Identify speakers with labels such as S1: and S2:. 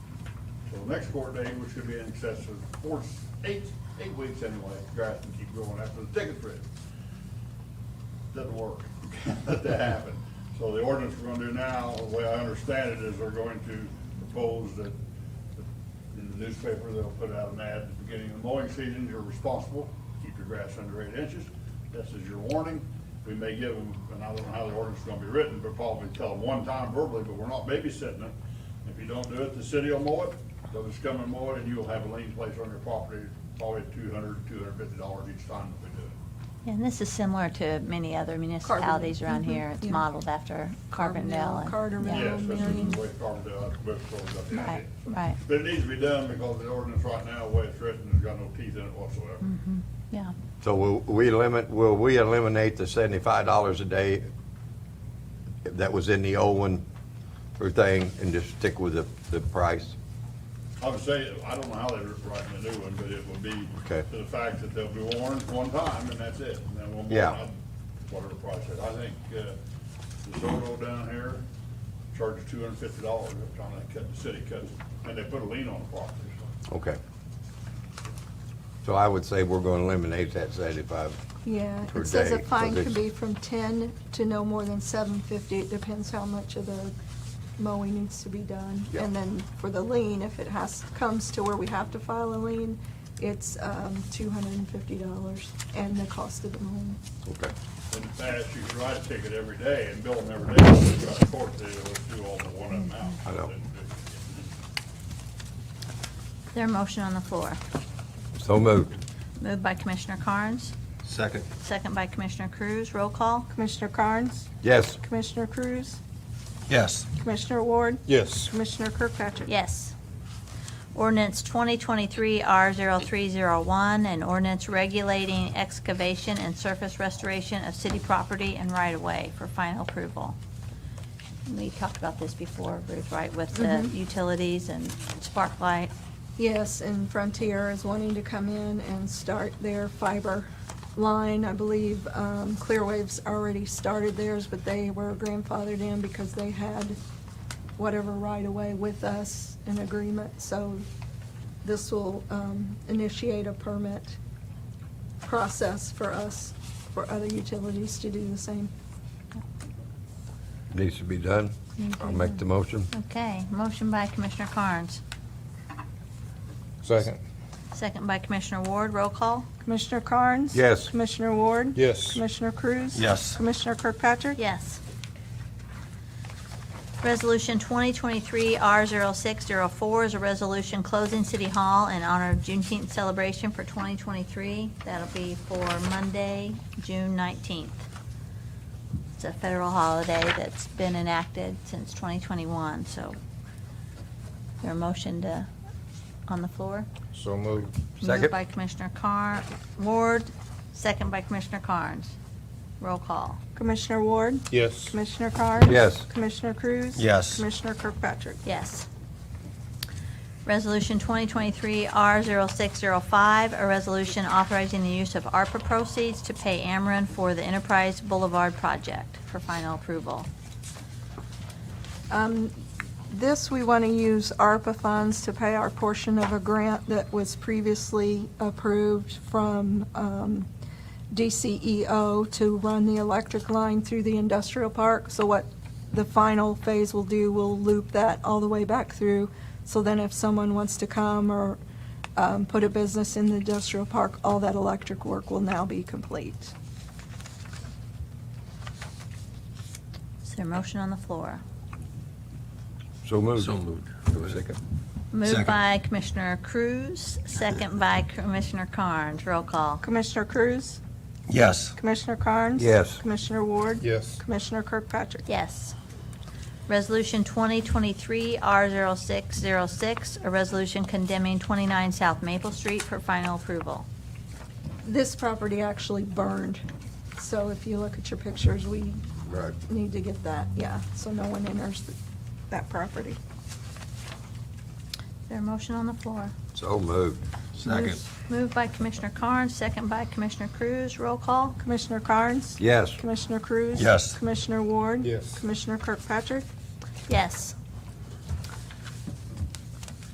S1: So the next court date, which should be in excess of four, eight, eight weeks anyway, guys can keep going after the ticket's written. Doesn't work, Can't let that happen. So the ordinance we're gonna do now, the way I understand it, is they're going to propose that in the newspaper, they'll put out an ad at the beginning of the mowing season, you're responsible, keep your grass under eight inches. This is your warning. We may give them, and I don't know how the ordinance is gonna be written, but probably tell them one time verbally, but we're not babysitting them. If you don't do it, the city will mow it, they'll just come and mow it, and you'll have a lien placed on your property, probably two hundred, two hundred fifty dollars each time that we do it.
S2: And this is similar to many other municipalities around here. It's
S3: yeah.
S2: modeled after Carbondale. and-
S3: Carbondale,
S2: yeah.
S3: Carterville.
S1: Yes, this is
S3: Marion.
S1: the way Carbondale, that's what we
S2: Right, right.
S1: But it needs to be done because the ordinance right now, the way it's written, has got no teeth in it whatsoever.
S2: Mm-hmm. Yeah,
S4: So will we limit, will we eliminate the seventy-five dollars a day that was in the old one or thing and just stick with the, the price?
S1: I would say, I don't know how they're writing a new one, but it would be
S4: Okay.
S1: to the fact that they'll be warned one time and that's it. And then we'll,
S4: Yeah.
S1: move on, whatever price it, I think, uh, the Zoto down here charges two hundred and fifty dollars every time they cut, the city cuts. And they put a lien on the property, so.
S4: Okay. So I would say we're gonna eliminate that seventy-five.
S3: Yeah,
S4: per
S3: it says a
S4: day,
S3: fine
S4: because
S3: could be
S4: it's-
S3: from ten to no more than seven fifty, it depends how much of the mowing needs to be done.
S4: Yeah.
S3: And then for the lien, if it has, comes to where we have to file a lien, it's, um, two hundred and fifty dollars and the cost of the mowing.
S4: Okay.
S1: In the past, you could write a ticket every day and bill them every day. If you got a court, they would do all the one amount.
S4: I know.
S2: Is there a motion on the floor.
S4: So moved.
S2: Moved by Commissioner Carnes,
S4: Second.
S2: second by Commissioner Cruz. Roll call?
S5: Commissioner Carnes,
S4: Yes.
S5: Commissioner Cruz,
S4: Yes.
S5: Commissioner Ward,
S4: Yes.
S5: Commissioner Kirkpatrick.
S2: Yes. Ordinance 2023-R0301, an ordinance regulating excavation and surface restoration of city property and right-of-way for final approval. We talked about this before, Ruth, right, with the utilities and Sparklight.
S3: Yes, and Frontier is wanting to come in and start their fiber line. I believe um, Clearwave's already started theirs, but they were grandfathered in because they had whatever right away with us in agreement. So this will um, initiate a permit process for us, for other utilities to do the same.
S4: Needs to be done. I'll make the motion.
S2: Okay, motion by Commissioner Carnes,
S4: Second.
S2: second by Commissioner Ward. Roll call?
S5: Commissioner Carnes.
S4: Yes.
S5: Commissioner Ward.
S4: Yes.
S5: Commissioner Cruz.
S4: Yes.
S5: Commissioner Kirkpatrick.
S2: Yes. Resolution 2023-R0604 is a resolution closing City Hall in honor of Juneteenth celebration for 2023. That'll be for Monday, June 19th. It's a federal holiday that's been enacted since 2021, so there a motion to, on the floor?
S4: So moved.
S2: Moved
S4: Second.
S2: by Commissioner Carn, Ward, second by Commissioner Carnes. Roll call.
S5: Commissioner Ward.
S4: Yes.
S5: Commissioner Carnes.
S4: Yes.
S5: Commissioner Cruz.
S4: Yes.
S5: Commissioner Kirkpatrick.
S2: Yes. Resolution 2023-R0605, a resolution authorizing the use of ARPA proceeds to pay Ameren for the Enterprise Boulevard project for final approval.
S3: Um, This, we want to use ARPA funds to pay our portion of a grant that was previously approved from um, DCEO to run the electric line through the industrial park. So what the final phase will do, we'll loop that all the way back through. So then if someone wants to come or um, put a business in the industrial park, all that electric work will now be complete.
S2: Is there a motion on the floor?
S4: So moved.
S6: So moved.
S4: Second.
S2: Moved
S6: Second.
S2: by Commissioner Cruz, second by Commissioner Carnes. Roll call.
S5: Commissioner Cruz.
S6: Yes.
S5: Commissioner Carnes.
S4: Yes.
S5: Commissioner Ward.
S4: Yes.
S5: Commissioner Kirkpatrick.
S2: Yes. Resolution 2023-R0606, a resolution condemning 29 South Maple Street for final approval.
S3: This property actually burned. So if you look at your pictures, we
S4: Right.
S3: need to get that, yeah, so no one enters th- that property.
S2: Is there a motion on the floor?
S4: So moved.
S6: Second.
S2: Moved- Moved by Commissioner Carnes, second by Commissioner Cruz. Roll call?
S5: Commissioner Carnes.
S4: Yes.
S5: Commissioner Cruz.
S6: Yes.
S5: Commissioner Ward.
S6: Yes.
S5: Commissioner Kirkpatrick.
S2: Yes.